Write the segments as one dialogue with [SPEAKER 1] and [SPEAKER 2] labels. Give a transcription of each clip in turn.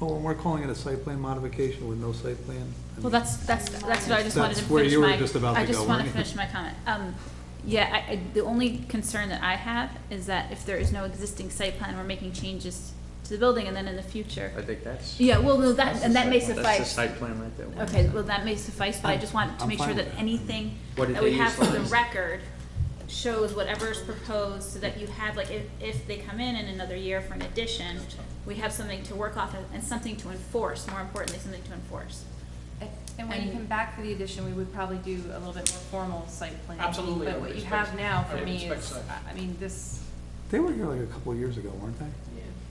[SPEAKER 1] Well, we're calling it a site plan modification with no site plan. I
[SPEAKER 2] Well,
[SPEAKER 1] mean,
[SPEAKER 2] that's, that's, that's what I just wanted to finish
[SPEAKER 1] That's
[SPEAKER 2] my.
[SPEAKER 1] where you were just about
[SPEAKER 2] I
[SPEAKER 1] to
[SPEAKER 2] just
[SPEAKER 1] go,
[SPEAKER 2] want to
[SPEAKER 1] weren't you?
[SPEAKER 2] finish my comment. Um, yeah, I, I, the only concern that I have is that if there is no existing site plan, we're making changes to the building and then in the future.
[SPEAKER 3] I think that's.
[SPEAKER 2] Yeah, well, no, that,
[SPEAKER 3] that's the
[SPEAKER 2] and that
[SPEAKER 3] site
[SPEAKER 2] may
[SPEAKER 3] plan.
[SPEAKER 2] suffice.
[SPEAKER 3] That's the site plan right there.
[SPEAKER 2] Okay, well, that may suffice, but I just want to
[SPEAKER 1] I'm
[SPEAKER 2] make sure
[SPEAKER 1] fine
[SPEAKER 2] that
[SPEAKER 1] with that.
[SPEAKER 2] anything
[SPEAKER 3] What did
[SPEAKER 2] that we
[SPEAKER 3] they
[SPEAKER 2] have
[SPEAKER 3] use
[SPEAKER 2] for the
[SPEAKER 3] lines?
[SPEAKER 2] record shows whatever's proposed, so that you have, like, if, if they come in in another year for an addition, we have something to work off of and something to enforce, more importantly, something to enforce.
[SPEAKER 4] And when you
[SPEAKER 2] And-
[SPEAKER 4] come back for the addition, we would probably do a little bit more formal site plan.
[SPEAKER 5] Absolutely, I
[SPEAKER 4] But
[SPEAKER 5] would
[SPEAKER 4] what you
[SPEAKER 5] expect-
[SPEAKER 4] have now
[SPEAKER 5] I
[SPEAKER 4] for
[SPEAKER 5] would
[SPEAKER 4] me
[SPEAKER 5] expect
[SPEAKER 4] is,
[SPEAKER 5] so.
[SPEAKER 4] I- I mean, this,
[SPEAKER 1] They were here like a couple of years ago, weren't they?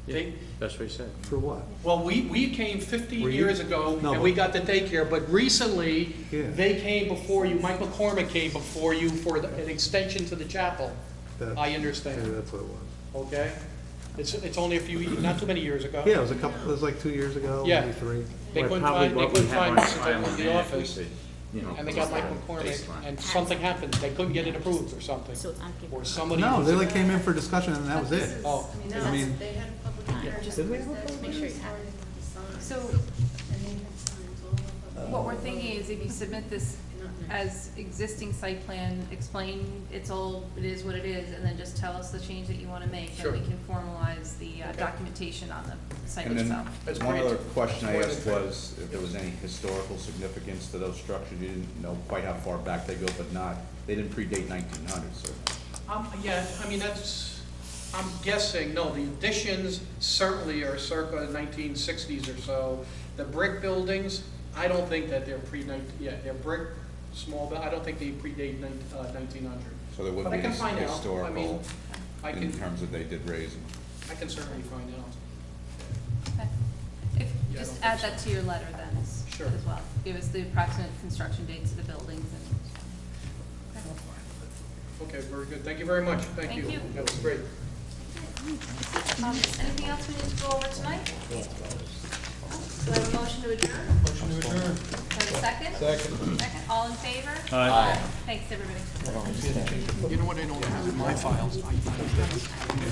[SPEAKER 3] Yeah, that's what he said.
[SPEAKER 1] For what?
[SPEAKER 5] Well, we, we came 15
[SPEAKER 1] Were you-
[SPEAKER 5] years ago,
[SPEAKER 1] No.
[SPEAKER 5] and we got the daycare, but recently,
[SPEAKER 1] Yeah.
[SPEAKER 5] they came before you, Mike McCormick came before you for the- an extension to the chapel,
[SPEAKER 1] That-
[SPEAKER 5] I understand.
[SPEAKER 1] Yeah, that's what it was.
[SPEAKER 5] okay? It's, it's only a few, not too many years ago.
[SPEAKER 1] Yeah, it was a couple, it was like two years ago,
[SPEAKER 5] Yeah.
[SPEAKER 1] maybe three.
[SPEAKER 5] They
[SPEAKER 3] Well,
[SPEAKER 5] couldn't
[SPEAKER 3] probably
[SPEAKER 5] find, they
[SPEAKER 3] what we
[SPEAKER 5] couldn't
[SPEAKER 3] have
[SPEAKER 5] find
[SPEAKER 3] on
[SPEAKER 5] us
[SPEAKER 3] file
[SPEAKER 5] in
[SPEAKER 3] on
[SPEAKER 5] the
[SPEAKER 3] that, we
[SPEAKER 5] office,
[SPEAKER 3] could, you know,
[SPEAKER 5] and they got
[SPEAKER 3] put
[SPEAKER 5] Mike
[SPEAKER 3] that
[SPEAKER 5] McCormick,
[SPEAKER 3] baseline.
[SPEAKER 5] and something happened, they couldn't get it approved or something,
[SPEAKER 2] So it's on paper.
[SPEAKER 5] or somebody.
[SPEAKER 1] No, they like came in for discussion and that was it.
[SPEAKER 5] Oh.
[SPEAKER 6] I mean,
[SPEAKER 1] I mean-
[SPEAKER 6] that's, they had a public hearing.
[SPEAKER 2] Just
[SPEAKER 1] Did we have a
[SPEAKER 6] That's
[SPEAKER 1] public
[SPEAKER 6] when
[SPEAKER 2] hearing?
[SPEAKER 6] we started with the signs.
[SPEAKER 4] so
[SPEAKER 6] And they had signs all over. the-
[SPEAKER 4] what we're thinking is if you submit this as existing site plan, explain it's all, it is what it is, and then just tell us the change that you want to make.
[SPEAKER 5] Sure.
[SPEAKER 4] And we can formalize the uh,
[SPEAKER 5] Okay.
[SPEAKER 4] documentation on the site
[SPEAKER 7] And then,
[SPEAKER 4] itself.
[SPEAKER 5] That's
[SPEAKER 7] one
[SPEAKER 5] great.
[SPEAKER 7] other question I
[SPEAKER 5] More than
[SPEAKER 7] asked
[SPEAKER 5] fair.
[SPEAKER 7] was if there was any historical significance to those structures. You didn't know quite how far back they go, but not, they didn't predate nineteen hundred, so.
[SPEAKER 5] Um, yeah, I mean, that's, I'm guessing, no, the additions certainly are circa nineteen sixties or so. The brick buildings, I don't think that they're pre nineteen, yeah, they're brick, small, but I don't think they predate uh, nineteen hundred.
[SPEAKER 7] So there wouldn't
[SPEAKER 5] But I
[SPEAKER 7] be
[SPEAKER 5] can
[SPEAKER 7] any
[SPEAKER 5] find out. I mean,
[SPEAKER 7] historical
[SPEAKER 5] I
[SPEAKER 7] in
[SPEAKER 5] can,
[SPEAKER 7] terms of they did raise them.
[SPEAKER 5] I can certainly find out.
[SPEAKER 4] Okay. If,
[SPEAKER 5] Yeah, I
[SPEAKER 4] just
[SPEAKER 5] don't
[SPEAKER 4] add
[SPEAKER 5] think
[SPEAKER 4] that to your letter then, as
[SPEAKER 5] Sure.
[SPEAKER 4] as well. Give us the approximate construction dates of the buildings and.
[SPEAKER 5] Okay, very good, thank you very much, thank
[SPEAKER 4] Thank
[SPEAKER 5] you.
[SPEAKER 4] you.
[SPEAKER 5] That was great.
[SPEAKER 4] Um, Anything else we need to go over tonight? Do I have a motion to adjourn?
[SPEAKER 5] Motion to adjourn.
[SPEAKER 4] Do I have a second? Second. Second, all in favor?
[SPEAKER 3] Aye.
[SPEAKER 4] Thanks, everybody.
[SPEAKER 5] You know what I don't have in my files? I-